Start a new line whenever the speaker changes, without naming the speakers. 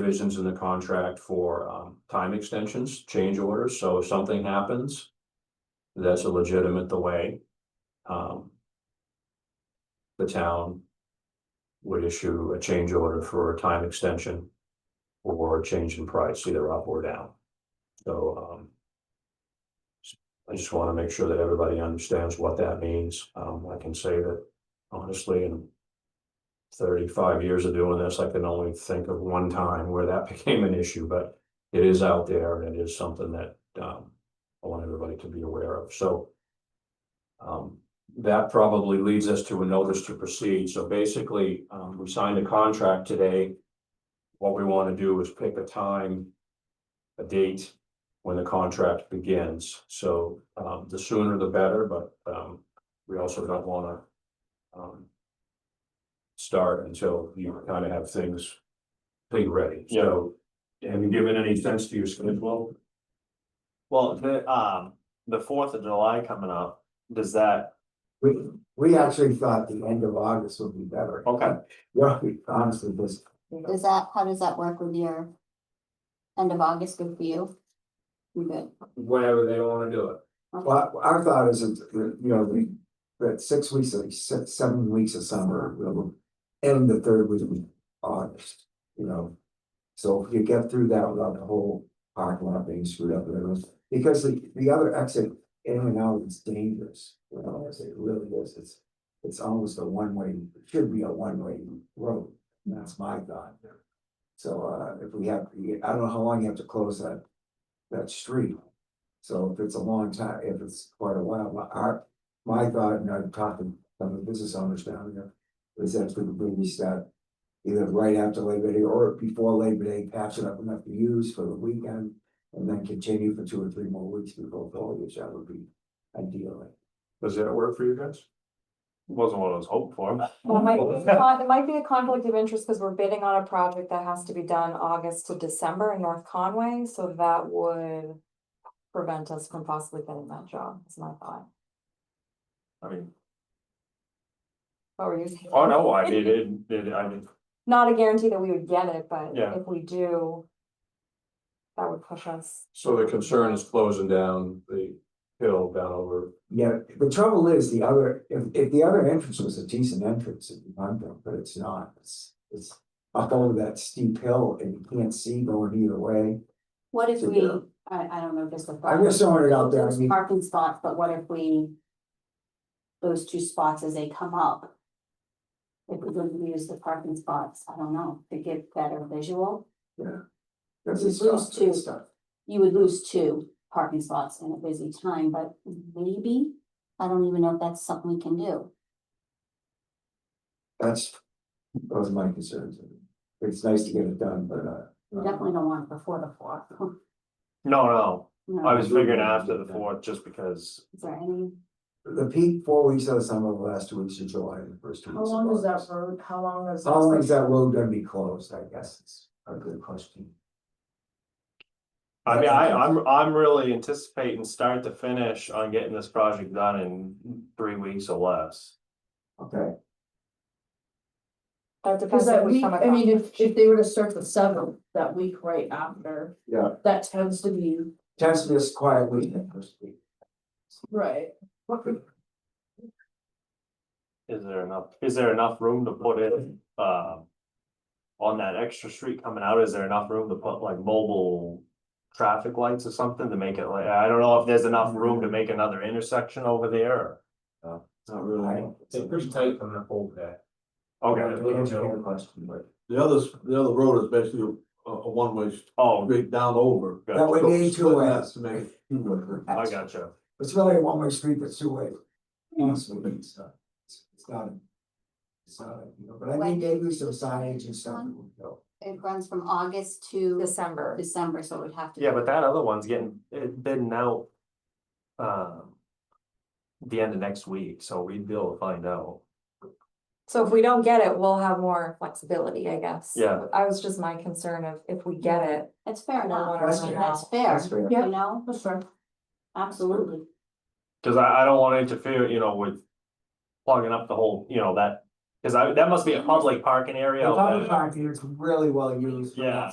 provisions in the contract for um time extensions, change orders, so if something happens. That's a legitimate delay. Um. The town. Would issue a change order for a time extension. Or a change in price, either up or down. So um. I just want to make sure that everybody understands what that means. Um, I can say that honestly and thirty-five years of doing this, I can only think of one time where that became an issue, but it is out there and it is something that, um, I want everybody to be aware of, so. Um, that probably leads us to a notice to proceed, so basically, um, we signed a contract today. What we want to do is pick a time, a date, when the contract begins, so, um, the sooner the better, but, um, we also don't wanna, um, start until you kind of have things pretty ready. So have you given any sense to your schedule?
Well, the, um, the Fourth of July coming up, does that,
We, we actually thought the end of August would be better.
okay,
Yeah, we honestly, this,
Does that, how does that work with your? End of August, good for you? You good?
Whenever they want to do it.
well, our thought is, that, you know, we, that six weeks, or se- seven weeks of summer, we'll end the third week of August, you know. So if you get through that without the whole parking lot being screwed up, and everything, because the, the other exit in and out is dangerous, you know, as it really is, it's. It's almost a one-way, should be a one-way road, and that's my thought. So, uh, if we have, I don't know how long you have to close that, that street. So if it's a long time, if it's quite a while, my, our, my thought, and I'm talking, to the business owners down here, is that we could maybe start. Either right after Labor Day or before Labor Day, patch it up enough to use for the weekend, and then continue for two or three more weeks before foliage, that would be ideal.
Does that work for you guys?
wasn't what I was hoping for.
Well, it might, be a con- it might be a conflict of interest because we're bidding on a project that has to be done August to December in North Conway, so that would. Prevent us from possibly getting that job, is my thought.
I mean,
What were you saying?
oh no, I mean, it, it, I mean,
Not a guarantee that we would get it, but
Yeah.
if we do. That would push us.
So the concern is closing down the hill down over.
Yeah, the trouble is, the other, if, if the other entrance was a decent entrance, it'd be under, but it's not, it's, it's. Up over that steep hill and you can't see going either way,
What if
So,
we,
yeah.
I, I don't know if there's a.
I'm just throwing it out there, I
Those
mean-
Parking spots, but what if we? Those two spots as they come up? If we wouldn't use the parking spots, I don't know, to get better visual,
that's
It's
it's just
just too-
stuff.
you would lose two parking spots in a busy time, but maybe. I don't even know if that's something we can do.
That's, those are my concerns, it's nice to get it done, but, uh.
We definitely don't want it before the fourth.
no, no,
No.
I was figuring after the Fourth, just because.
Is there any?
The peak, four weeks of the summer, the last two weeks of July, and the first two
How
weeks. of
long is that
August.
road? How long is?
How long is
that?
that road gonna be closed, I guess, is a good question.
I mean, I, I'm, I'm really anticipating start to finish on getting this project done in three weeks or less.
Okay,
That
Cause
depends
that
on which
week,
kind of
I mean, if,
conflict.
if they were to start the seventh, that week right after.
Yeah.
That tends to be,
test this quietly in the first week.
right,
Is there enough, is there enough room to put it, um On that extra street coming out, is there enough room to put like mobile? Traffic lights or something to make it like, I don't know if there's enough room to make another intersection over there.
Not really.
on that whole that.
or-
Okay,
Okay,
we answered your question, but
The others, the other road is basically a, a one-way
oh,
straight down over.
good.
that would be two
Splitting that
ways.
To make it
I gotcha.
It's really a one-way street that's two ways. Honestly, it's not, it's it's not. a- It's not, a, you know, but I
When-
think maybe some signage and stuff that would help.
It runs from August to
December.
December, so it would have to.
Yeah, but that other one's getting, it bidding out. Um. The end of next week, so we'd be able to find out.
So if we don't get it, we'll have more flexibility, I guess.
Yeah.
I was just my concern of if we get it.
That's fair enough,
That's
fair.
that's fair,
That's fair.
Yeah.
you know,
that's right.
absolutely.
Cause I, I don't wanna interfere, you know, with. Plugging up the whole, you know, that, cause I, that must be a public parking area.
The
out there.
public park here is really well used.
Yeah.